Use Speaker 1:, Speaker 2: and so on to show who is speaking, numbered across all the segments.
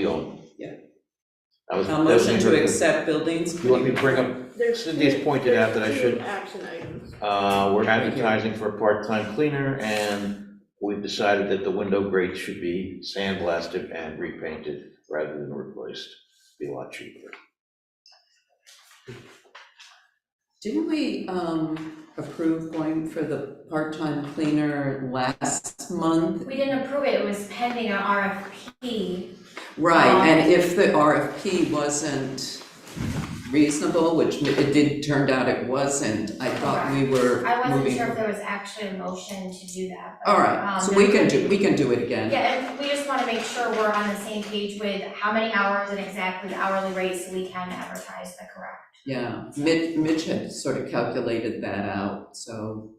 Speaker 1: doing.
Speaker 2: Yeah.
Speaker 1: That was.
Speaker 2: A
Speaker 1: that was
Speaker 2: motion
Speaker 1: my-
Speaker 2: to accept buildings
Speaker 1: You want me
Speaker 2: committee.
Speaker 1: to bring up,
Speaker 3: There's
Speaker 1: Cynthia's
Speaker 3: two-
Speaker 1: pointed out
Speaker 3: there's
Speaker 1: that I
Speaker 3: two
Speaker 1: should-
Speaker 3: Action items.
Speaker 1: uh, we're
Speaker 2: Thank you.
Speaker 1: advertising for a part-time cleaner and we've decided that the window grates should be sandblasted and repainted rather than replaced. Be a lot cheaper.
Speaker 2: Didn't we, um, approve going for the part-time cleaner last month?
Speaker 4: We didn't approve it, it was pending an RFP.
Speaker 2: Right,
Speaker 4: Um,
Speaker 2: and if the RFP wasn't reasonable, which it did, turned out it wasn't, I thought we were
Speaker 4: I wasn't
Speaker 2: moving.
Speaker 4: sure if there was actually a motion to do that. but,
Speaker 2: All right,
Speaker 4: um,
Speaker 2: so we can do, we can do it again.
Speaker 4: Yeah, and we just want to make sure we're on the same page with how many hours and exactly the hourly rate so we can advertise the correct.
Speaker 2: Yeah, Mitch, Mitch had sort of calculated that out, so,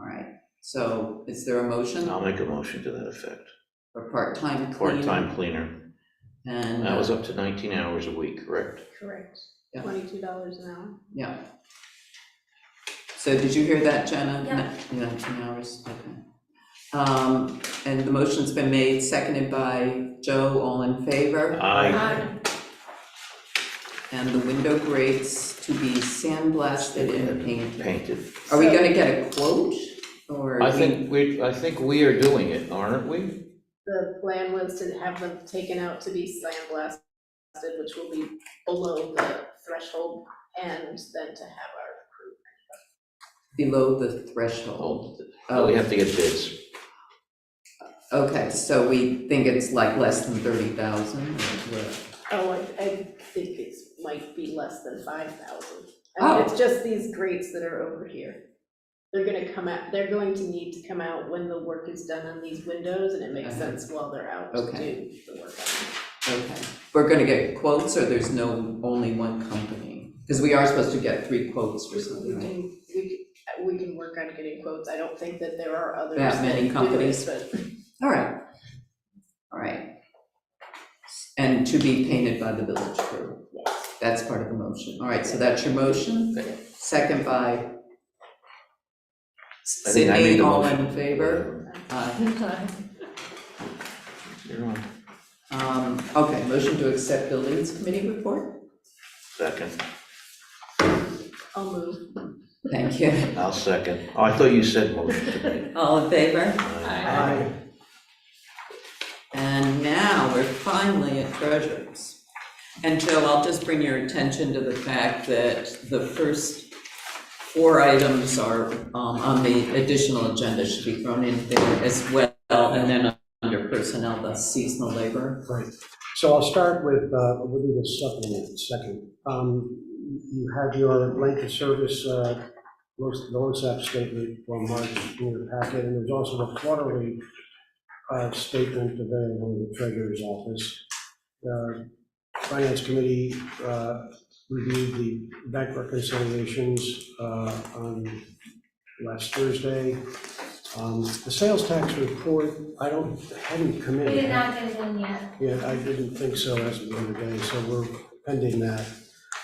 Speaker 2: all right. So is there a motion
Speaker 1: I'll make a motion to that effect.
Speaker 2: for part-time cleaner?
Speaker 1: Part-time cleaner.
Speaker 2: And, uh,
Speaker 1: That was up to 19 hours a week, correct?
Speaker 3: Correct.
Speaker 2: Yeah.
Speaker 3: Twenty-two dollars an hour.
Speaker 2: yeah. So did you hear that, Jenna?
Speaker 4: Yeah.
Speaker 2: No- Nineteen hours, okay. Um, and the motion's been made, seconded by Joe, all in favor?
Speaker 1: Aye.
Speaker 4: Um,
Speaker 2: And the window grates to be sandblasted and painted.
Speaker 1: Painted.
Speaker 2: Are we gonna get a quote, or?
Speaker 1: I
Speaker 2: we-
Speaker 1: think we, I think we are doing it, aren't we?
Speaker 3: The plan was to have them taken out to be sandblasted, which will be below the threshold, and then to have our crew.
Speaker 2: Below the threshold.
Speaker 1: Well, Oh, We
Speaker 2: of-
Speaker 1: have to get bids.
Speaker 2: Okay, so we think it's like less than thirty thousand?
Speaker 3: Oh, I, I think it's, might be less than five thousand. I
Speaker 2: Oh.
Speaker 3: mean, it's just these grates that are over here. They're gonna come out, they're going to need to come out when the work is done on these windows, and it makes
Speaker 2: Uh-huh.
Speaker 3: sense while they're out to do
Speaker 2: Okay.
Speaker 3: the work on them.
Speaker 2: Okay, we're gonna get quotes, or there's no, only one company? Because we are supposed to get three quotes for
Speaker 3: We
Speaker 2: something, right?
Speaker 3: can, we can, we can work on getting quotes, I don't think that there are others
Speaker 2: That
Speaker 3: that
Speaker 2: many
Speaker 3: do it,
Speaker 2: companies.
Speaker 3: but
Speaker 2: All right, all right. And to be painted by the village crew. That's part of the motion. All right, so that's your motion, second by
Speaker 1: I think I made
Speaker 2: Sydney,
Speaker 1: the
Speaker 2: all
Speaker 1: motion.
Speaker 2: in favor? Aye.
Speaker 1: You're on.
Speaker 2: Um, okay, motion to accept buildings committee report?
Speaker 1: Second,
Speaker 3: I'll move.
Speaker 2: Thank you.
Speaker 1: I'll second. Oh, I thought you said motion to me.
Speaker 2: All in favor?
Speaker 3: Aye.
Speaker 2: And now we're finally at treasures. And Joe, I'll just bring your attention to the fact that the first four items are, um, on the additional agenda should be thrown in there as well. And then under personnel, the seasonal labor.
Speaker 5: Right, so I'll start with, uh, we'll do this supplement second. Um, you have your length of service, uh, most, the LoSAP statement from March in your packet, and there's also a quarterly, uh, statement available in the treasurer's office. The Finance committee, uh, reviewed the bank reconciliations, uh, on last Thursday. Um, the sales tax report, I don't, hadn't come in.
Speaker 4: We did not get one yet.
Speaker 5: Yeah, I didn't think so as of the other day, so we're pending that.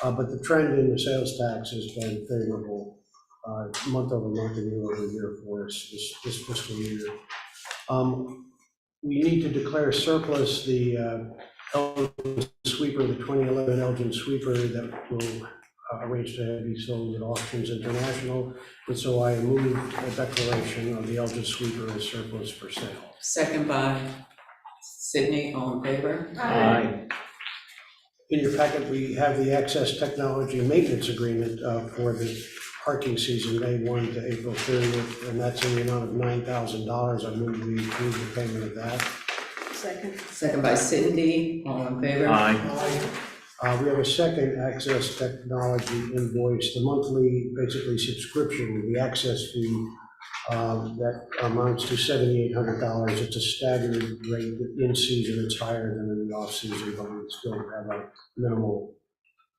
Speaker 5: Uh, But the trend in the sales tax has been favorable, uh, month over month and year over year for us this this fiscal year. Um, We need to declare surplus the uh, Elgin sweeper, the 2011 Elgin sweeper that will uh, arrange to be sold at Auctions International. And so I moved a declaration of the Elgin sweeper as surplus for sale.
Speaker 2: Second by Sydney, all in favor?
Speaker 1: Aye.
Speaker 5: In your packet, we have the Access Technology Maintenance Agreement uh, for the parking season, May 1 to April 30th, and that's in the amount of $9,000. I move we approve the payment of that.
Speaker 3: Second.
Speaker 2: Second by Cindy, all in favor?
Speaker 1: Aye.
Speaker 5: Uh, We have a second Access Technology invoice, the monthly, basically subscription, the access fee, um, that amounts to $7,800. It's a staggered rate in season, it's higher than in the off-season, but we still have a minimal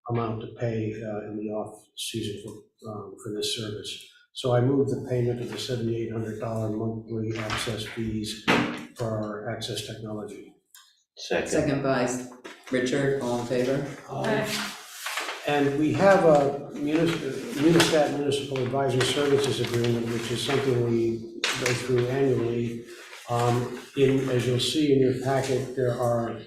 Speaker 5: amount to pay uh, in the off-season for, um, for this service. So I move the payment of the $7,800 monthly access fees for our access technology.
Speaker 1: Second.
Speaker 2: Second by Richard, all in favor?
Speaker 5: And we have a munis- Munistat Municipal Advisory Services Agreement, which is something we go through annually. Um, In, as you'll see in your packet, there are